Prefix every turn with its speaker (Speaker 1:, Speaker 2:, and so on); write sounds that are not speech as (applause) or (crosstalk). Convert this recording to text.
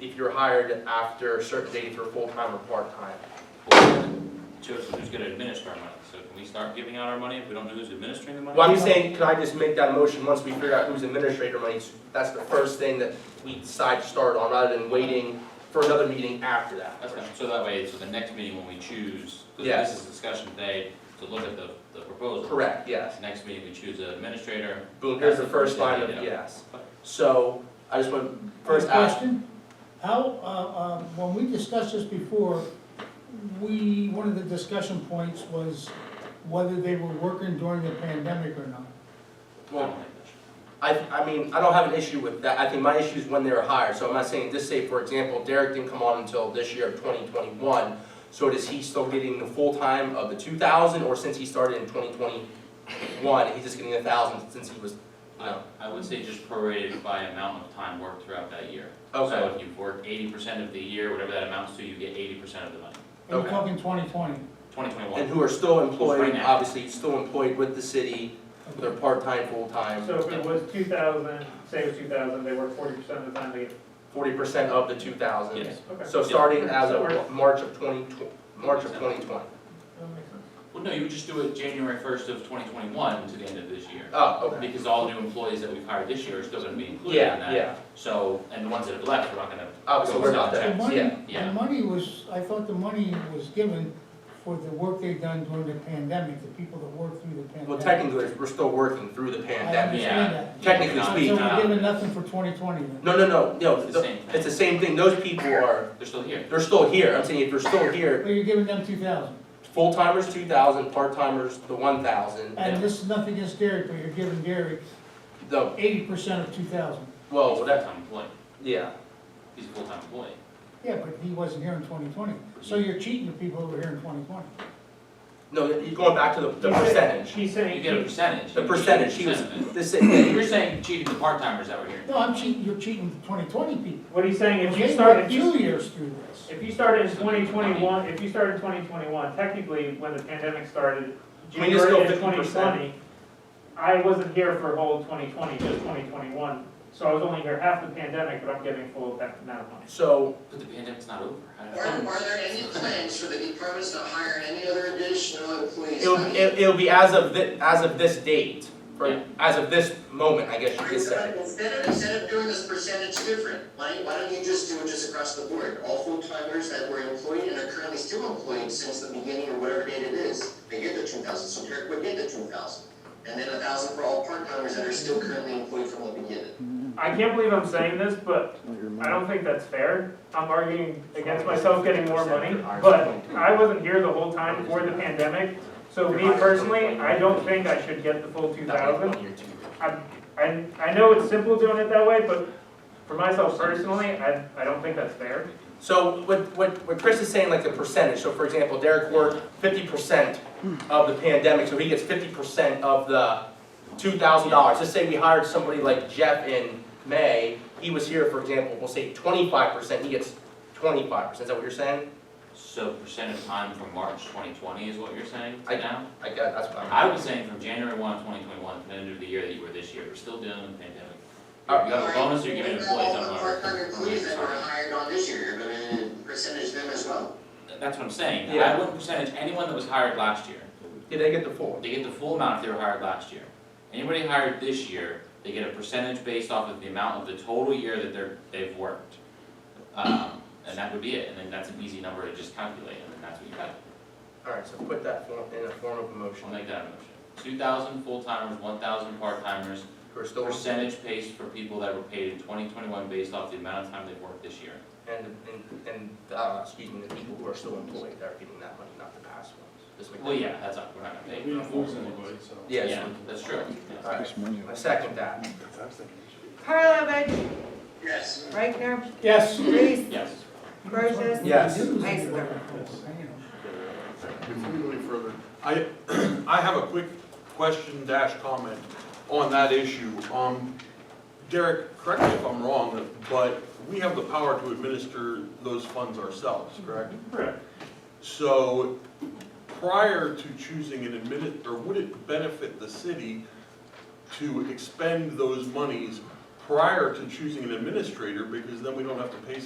Speaker 1: if you're hired after a certain date for full-time or part-time.
Speaker 2: Joseph, who's gonna administer our money? So can we start giving out our money if we don't know who's administering the money?
Speaker 1: Well, I'm saying, can I just make that motion once we figure out who's administrator money? That's the first thing that we decide to start on, rather than waiting for another meeting after that.
Speaker 2: That's fine. So that way, so the next meeting when we choose, because
Speaker 1: Yes.
Speaker 2: this is discussion today, to look at the, the proposal.
Speaker 1: Correct, yes.
Speaker 2: Next meeting, we choose an administrator.
Speaker 1: Boom, here's the first line of yes. So, I just want to first ask,
Speaker 3: Question, how, uh, um, when we discussed this before, we, one of the discussion points was whether they were working during the pandemic or not.
Speaker 2: I
Speaker 1: well,
Speaker 2: don't like that.
Speaker 1: I, I mean, I don't have an issue with that, I think my issue is when they were hired, so I'm not saying, just say, for example, Derek didn't come on until this year of twenty twenty-one, so does he still getting the full time of the two thousand, or since he started in twenty twenty-one, he's just getting a thousand since he was,
Speaker 2: I,
Speaker 1: no,
Speaker 2: I would say just prorated by amount of time worked throughout that year. So
Speaker 1: okay,
Speaker 2: if you've worked eighty percent of the year, whatever that amounts to, you get eighty percent of the money,
Speaker 3: And
Speaker 1: Okay.
Speaker 3: we're talking twenty twenty.
Speaker 2: twenty twenty-one.
Speaker 1: and who are still
Speaker 2: Right
Speaker 1: employed,
Speaker 2: now.
Speaker 1: obviously, still employed with the city, they're part-time, full-time,
Speaker 4: So if it was two thousand, say it was two thousand, they work forty percent of the time, they get,
Speaker 1: forty percent of the two thousand.
Speaker 2: Yes.
Speaker 4: okay.
Speaker 1: So starting as of March of twenty, March of twenty twenty.
Speaker 4: That makes sense.
Speaker 2: Well, no, you would just do it January first of twenty twenty-one to the end of this year.
Speaker 1: Oh, okay.
Speaker 2: Because all new employees that we've hired this year are still gonna be included in
Speaker 1: Yeah,
Speaker 2: that.
Speaker 1: yeah,
Speaker 2: So, and the ones that have left, we're not gonna.
Speaker 1: obviously, Oh, we're not
Speaker 3: The
Speaker 1: there, yeah.
Speaker 3: money,
Speaker 2: yeah.
Speaker 3: the money was, I thought the money was given for the work they've done during the pandemic, the people that worked through the pandemic.
Speaker 1: Well, technically, we're still working through
Speaker 2: Oh,
Speaker 1: the pandemic.
Speaker 2: Yeah.
Speaker 3: understand that.
Speaker 1: Technically
Speaker 2: Yeah,
Speaker 1: speaking.
Speaker 3: So
Speaker 2: no,
Speaker 3: we're
Speaker 2: no,
Speaker 3: giving nothing for twenty twenty then?
Speaker 1: No, no, no, no,
Speaker 2: It's the same
Speaker 1: it's the
Speaker 2: thing.
Speaker 1: same thing, those people are,
Speaker 2: They're still here.
Speaker 1: they're still here, I'm saying if they're still here,
Speaker 3: But you're giving them two thousand,
Speaker 1: full-timers two thousand, part-timers the one thousand,
Speaker 2: Yeah.
Speaker 3: and this is nothing against Derek, but you're giving Derek
Speaker 1: the,
Speaker 3: eighty percent of two thousand.
Speaker 2: He's
Speaker 1: well,
Speaker 2: a
Speaker 1: that,
Speaker 2: full-time employee.
Speaker 1: yeah.
Speaker 2: He's a full-time employee.
Speaker 3: Yeah, but he wasn't here in twenty twenty, so you're cheating the people who were here in twenty twenty.
Speaker 1: No, you're going back to the, the
Speaker 4: He's saying-
Speaker 1: percentage,
Speaker 4: He's
Speaker 2: You get a
Speaker 4: saying,
Speaker 2: percentage.
Speaker 1: the
Speaker 2: You get
Speaker 1: percentage, he was,
Speaker 2: percent of it.
Speaker 1: this,
Speaker 2: You're saying cheating the part-timers that were here.
Speaker 3: No, I'm cheating, you're cheating twenty twenty people.
Speaker 4: what he's saying, if you
Speaker 3: They
Speaker 4: start,
Speaker 3: worked
Speaker 4: if
Speaker 3: Two
Speaker 4: you,
Speaker 3: years through this.
Speaker 4: if you started in twenty twenty-one, if you started in twenty twenty-one, technically, when the pandemic started,
Speaker 1: Can we just go
Speaker 4: January of twenty
Speaker 1: 50%?
Speaker 4: twenty, I wasn't here for whole twenty twenty, just twenty twenty-one, so I was only here half the pandemic, but I'm getting full of that amount of money.
Speaker 1: so,
Speaker 2: But the pandemic's not over. I don't
Speaker 5: Are,
Speaker 2: know.
Speaker 5: are there any plans for the departments to hire any other additional employees?
Speaker 1: it'll, it- it'll be as of thi, as of this date,
Speaker 2: Yeah.
Speaker 1: or as of this moment, I guess you could say.
Speaker 5: Instead of, instead of doing this percentage different, why, why don't you just do it just across the board? All full-timers that were employed and are currently still employed since the beginning or whatever date it is, they get the two thousand, so Derek would get the two thousand. And then a thousand for all part-timers that are still currently employed from the beginning.
Speaker 4: I can't believe I'm saying this, but I don't think that's fair. I'm arguing against myself getting more money, but I wasn't here the whole time for the pandemic. So me personally, I don't think I should get the full two
Speaker 2: That was
Speaker 4: thousand.
Speaker 2: one year too.
Speaker 4: I, I, I know it's simple doing it that way, but for myself personally, I, I don't think that's fair.
Speaker 1: So what, what, what Chris is saying, like the percentage, so for example, Derek worked fifty percent of the pandemic, so he gets fifty percent of the two thousand dollars. Let's say we hired somebody like Jeff in May, he was here, for example, we'll say twenty-five percent, he gets twenty-five percent, is that what you're saying?
Speaker 2: So percent of time from March twenty twenty is what you're saying
Speaker 1: I- um,
Speaker 2: to now?
Speaker 1: I got, that's what I'm.
Speaker 2: I was saying from January one of twenty twenty-one to the end of the year that you were this year, we're still dealing with the pandemic. You have a bonus you're giving employees,
Speaker 5: All
Speaker 2: I'm
Speaker 5: the part-time employees that were hired on this year, you're gonna percentage them as well.
Speaker 2: That's what I'm saying.
Speaker 1: Yeah.
Speaker 2: I wouldn't percentage anyone that was hired last year.
Speaker 1: Did I get the full?
Speaker 2: They get the full amount if they were hired last year. Anybody hired this year, they get a percentage based off of the amount of the total year that they're, they've worked. Um, and that would be it, and then that's an easy number to just calculate, and then that's what you have.
Speaker 1: Alright, so put that form in a form of a motion,
Speaker 2: I'll make that a motion. Two thousand full-timers, one thousand part-timers,
Speaker 1: we're still, and,
Speaker 2: percentage based for people that were paid in twenty twenty-one based off the amount of time they've worked this year.
Speaker 1: and, and, uh, excuse me, the people who are still employed, they're getting that money, not the past ones. Just make that-
Speaker 2: Well, yeah, that's, not- we're not gonna pay.
Speaker 6: We don't force anybody, so.
Speaker 1: Yeah,
Speaker 2: Yeah,
Speaker 1: so-
Speaker 2: that's true. Yeah.
Speaker 1: alright, I second that.
Speaker 7: Karlovic,
Speaker 5: Yes.
Speaker 7: Reichner,
Speaker 3: Yes.
Speaker 7: Reese,
Speaker 2: Yes.
Speaker 7: Brochus.
Speaker 1: Yes.
Speaker 7: Iceberg.
Speaker 6: Before we go any further, I, (clears throat) I have a quick question dash comment on that issue. Um, Derek, correct me if I'm wrong, but we have the power to administer those funds ourselves, correct?
Speaker 4: Correct.
Speaker 6: So prior to choosing an admin, or would it benefit the city to expend those monies prior to choosing an administrator? Because then we don't have to pay